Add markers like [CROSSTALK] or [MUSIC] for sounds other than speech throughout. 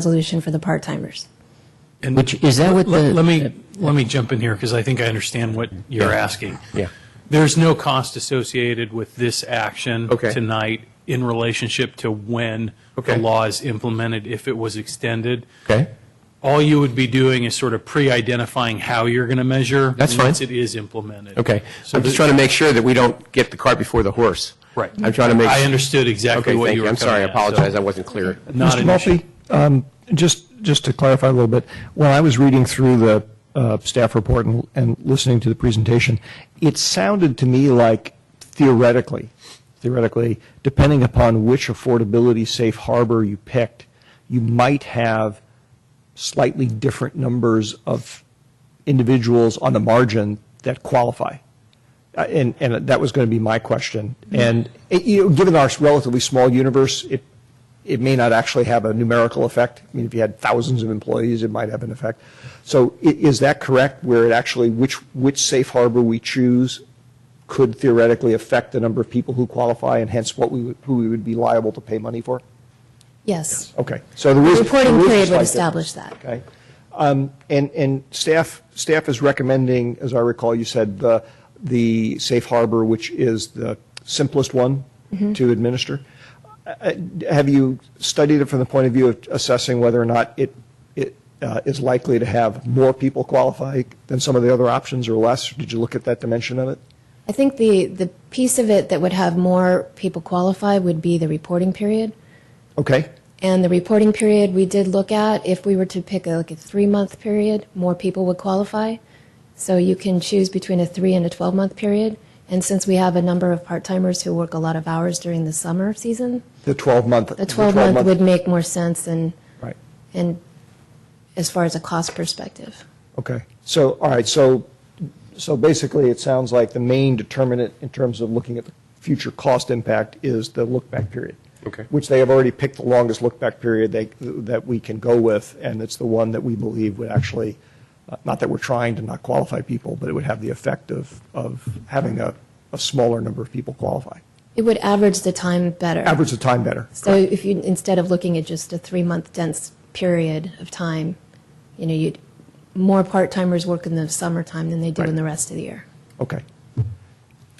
resolution for the part-timers. And Which- is that what let- the- Let me, let me jump in here, because I think I understand what you're asking. Yeah. There's no cost associated with this action Okay. tonight in relationship to when the Okay. law is implemented, if it was extended. Okay. All you would be doing is sort of pre-identifying how you're going to measure. That's fine. Once it is implemented. Okay. So I'm just the- trying to make sure that we don't get the cart before the horse. Right. I'm trying to make. I understood exactly Okay, what thank you you. were I'm sorry. I coming at, so- apologize. I wasn't clear. Not an issue. Mr. Murphy, um, just, just to clarify a little bit, when I was reading through the uh, staff report and, and listening to the presentation, it sounded to me like theoretically, theoretically, depending upon which affordability safe harbor you picked, you might have slightly different numbers of individuals on the margin that qualify. Uh, And, and that was going to be my question. And it, you know, given our relatively small universe, it, it may not actually have a numerical effect. I mean, if you had thousands of employees, it might have an effect. So i- is that correct, where it actually, which, which safe harbor we choose could theoretically affect the number of people who qualify and hence what we, would- who we would be liable to pay money for? Yes. Okay, so there is. The reporting there is a period would slight establish difference. that. Okay. Um, And, and staff, staff is recommending, as I recall, you said, the, the safe harbor, which is the simplest one Mm-hmm. to administer. Uh, uh, Have you studied it from the point of view of assessing whether or not it, it uh, is likely to have more people qualify than some of the other options or less? Did you look at that dimension of it? I think the, the piece of it that would have more people qualify would be the reporting period. Okay, And the reporting period, we did look at, if we were to pick a, like a three-month period, more people would qualify. So you can choose between a three and a 12-month period. And since we have a number of part-timers who work a lot of hours during the summer season, the 12-month. a 12-month would make more sense than, Right. and as far as a cost perspective. Okay, so, all right, so, so basically, it sounds like the main determinant in terms of looking at the future cost impact is the look-back period. Okay. Which they have already picked the longest look-back period they, that we can go with, and it's the one that we believe would actually, uh, not that we're trying to not qualify people, but it would have the effect of, of having a, a smaller number of people qualify. It would average the time better. Average the time better. So if you, instead of looking at just a three-month dense period of time, you know, you'd, more part-timers work in the summertime than they do in the rest of the year. Okay.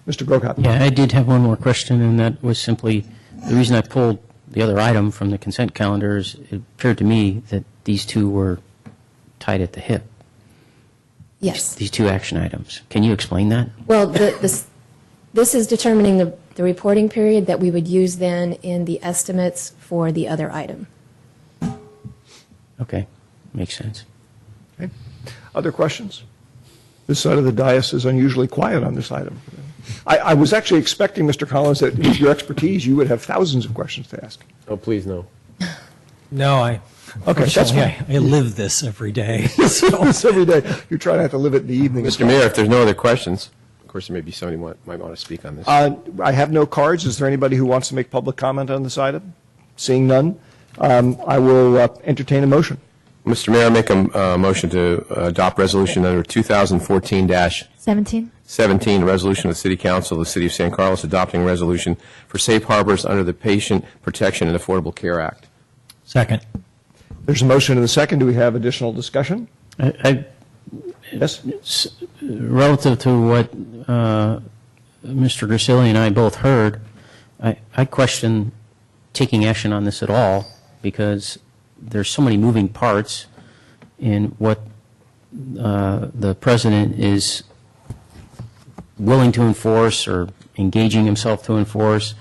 Mr. Grocott? Yeah, I did have one more question, and that was simply, the reason I pulled the other item from the consent calendar is it appeared to me that these two were tied at the hip, Yes. these two action items. Can you explain that? Well, the, this, this is determining the, the reporting period that we would use then in the estimates for the other item. Okay, makes sense. Okay. Other questions? This side of the dais is unusually quiet on this item. I, I was actually expecting, Mr. Collins, that with your expertise, you would have thousands of questions to ask. Oh, please, no. No, I. Okay, that's [LAUGHS] unfortunately, I, I live this every day. so- It's every day. You try not to live it in the evening. Mr. Mayor, If there's no other questions, of course, there may be somebody who might want to speak on this. Uh, I have no cards. Is there anybody who wants to make public comment on this item? Seeing none, um, I will uh, entertain a motion. Mr. Mayor, I make a uh, motion to adopt resolution number 2014-17, 17? a resolution of the City Council of the City of San Carlos adopting resolution for safe harbors under the Patient Protection and Affordable Care Act. Second. There's a motion and a second. Do we have additional discussion? I- I- Yes? Relative to what uh, Mr. Grisilli and I both heard, I I question taking action on this at all, because there's so many moving parts in what uh, the president is willing to enforce or engaging himself to enforce,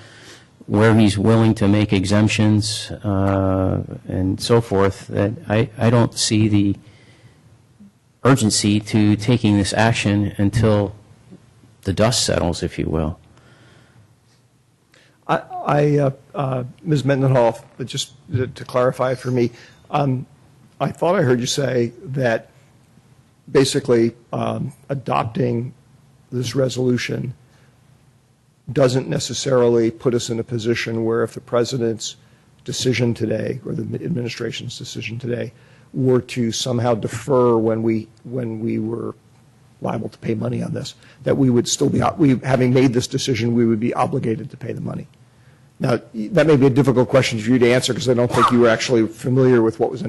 where he's willing to make exemptions uh, and so forth, that I I don't see the urgency to taking this action until the dust settles, if you will. I- I, uh, uh, Ms. Mendenhall, but just to to clarify for me, um, I thought I heard you say that basically um, adopting this resolution doesn't necessarily put us in a position where if the president's decision today, or the administration's decision today, were to somehow defer when we, when we were liable to pay money on this, that we would still be, we, having made this decision, we would be obligated to pay the money. Now, that may be a difficult question for you to answer, because I don't think you were actually familiar with what was